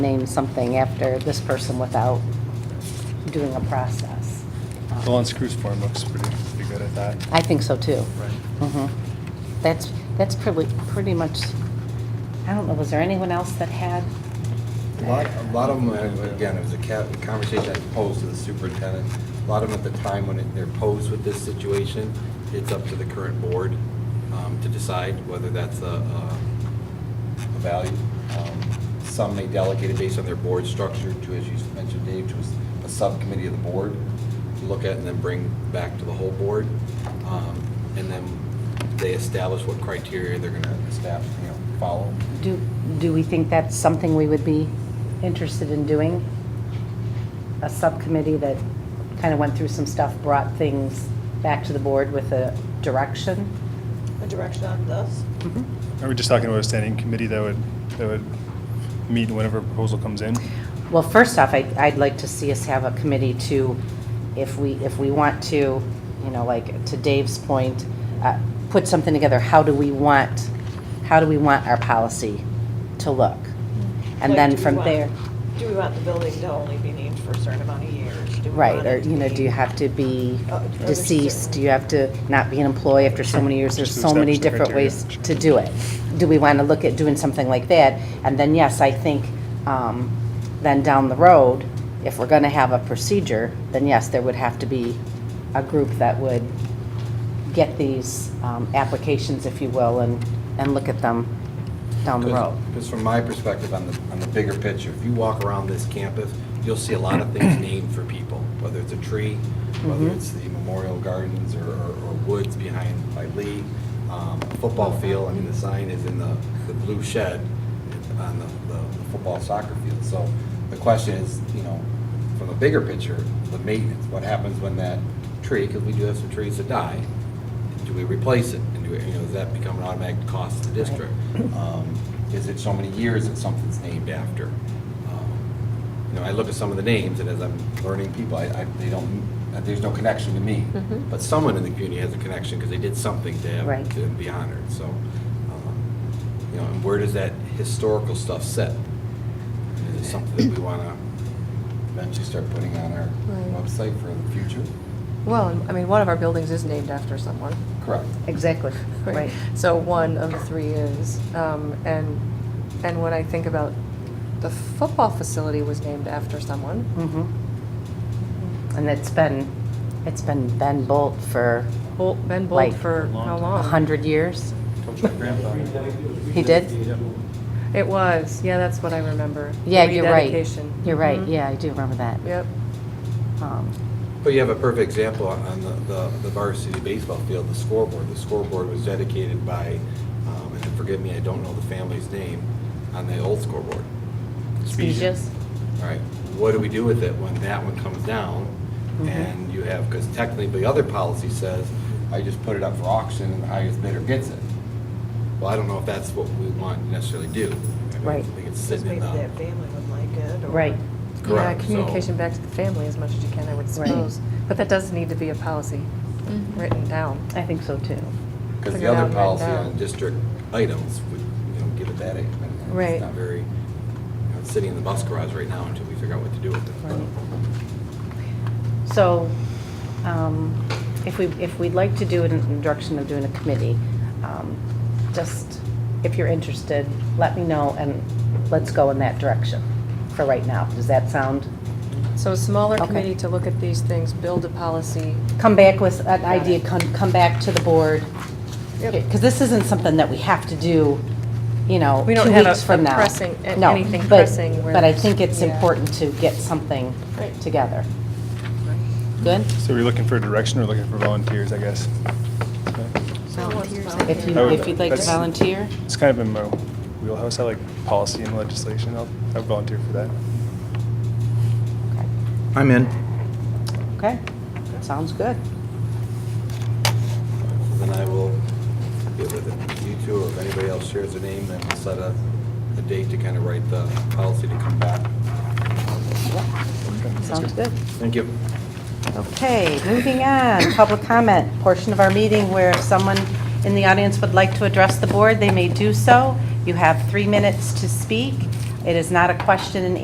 name something after this person without doing a process. Um, The unscrews form looks pretty, pretty good at that. I think so too. Right. Mhm. That's, that's pretty, pretty much, I don't know, was there anyone else that had? A lot, a lot of them, uh, again, it was a ca- a conversation I posed to the superintendent. A lot of them at the time when it- they're posed with this situation, it's up to the current board um, to decide whether that's a, a a value. Um, Some may delegate it based on their board structure to, as you mentioned, Dave, to a s- a subcommittee of the board to look at and then bring back to the whole board. Um, And then they establish what criteria they're gonna establish, you know, follow. Do, do we think that's something we would be interested in doing? A subcommittee that kind of went through some stuff, brought things back to the board with a direction? a direction on this. Are we just talking about a standing committee that would, that would meet whenever a proposal comes in? Well, first off, I- I'd like to see us have a committee to, if we, if we want to, you know, like, to Dave's point, uh, put something together, how do we want, how do we want our policy to look? And Like, do then we from want- there, Do we want the building to only be named for a certain amount of years? Do we right, want or, it to you know, be- do you have to be Uh, are there deceased? certain- Do you have to not be an employee after so many years? There's Just so many establish the different ways criteria. to do it. Do we want to look at doing something like that? And then, yes, I think, um, then down the road, if we're going to have a procedure, then yes, there would have to be a group that would get these um, applications, if you will, and, and look at them down the road. Because from my perspective, on the, on the bigger picture, if you walk around this campus, you'll see a lot of things named for people, whether it's a tree, whether Mm-hmm. it's the memorial gardens or, or or woods behind by Lee, um, a football field, I mean, the sign is in the, the blue shed on the, the the football soccer field. So the question is, you know, from the bigger picture, the maintenance, what happens when that tree, because we do have some trees that die, do we replace it? And do we, you know, does that become an automatic cost to the district? Um, Is it so many years that something's named after? Um, You know, I look at some of the names, and as I'm learning people, I, I, they don't, uh, there's no connection to me. But someone in the community has a connection because they did something to Right. have, to be honored, so. um, You know, and where does that historical stuff sit? Is it something that we want to eventually start putting on our Right. website for the future? Well, I mean, one of our buildings is named after someone. Correct. Exactly, right. So one of the three is, um, and, and when I think about the football facility was named after someone. Mhm. Mm-hmm. And it's been, it's been Ben Bolt for Bolt, Ben Like, Bolt for how a long? 100 years. He did? It was, yeah, that's what I remember. Yeah, you're right. Rededication. You're right, Mhm. Mm-hmm. yeah, I do remember that. Yep. Um, But you have a perfect example on- on the- the the varsity baseball field, the scoreboard. The scoreboard was dedicated by, um, and forgive me, I don't know the family's name, on the old scoreboard. Speeches? All right, what do we do with it when that one comes down? And you have, because technically the other policy says, I just put it up for auction and the highest bidder gets it. Well, I don't know if that's what we want to necessarily do. I mean, Right. I think it's Because sitting maybe in that the. family would like it, or. Right. Yeah, Correct, so- communication back to the family as much as you can, I would suppose. But that does need to be a policy written down. I think so too. Because the Figure it out other right policy now. on district items would, you know, give it that, eight minutes. Right. it's not very, you know, it's sitting in the bus garage right now until we figure out what to do with it. So um, if we, if we'd like to do it in the direction of doing a committee, um, just, if you're interested, let me know and let's go in that direction for right now. Does that sound? So a smaller Okay. committee to look at these things, build a policy. Come back with an idea, come, come back to the board. Because this isn't something that we have to do, you know, We don't two have a- weeks from a now. pressing- a- No, anything but- pressing where But I there's- think it's yeah. important to get something Right. together. Good? So we're looking for a direction or looking for volunteers, I guess? Volunteers. If you, I would- if you'd like to that's- volunteer? It's kind of in my wheelhouse. I like policy and legislation. I'll, I'll volunteer for that. I'm in. Okay, sounds good. Then I will get with it. you two, or if anybody else shares a name, then we'll set a, a date to kind of write the policy to come back. Okay, that's Sounds good. Thank you. Okay, moving on, public comment portion of our meeting where if someone in the audience would like to address the board, they may do so. You have three minutes to speak. It is not a question and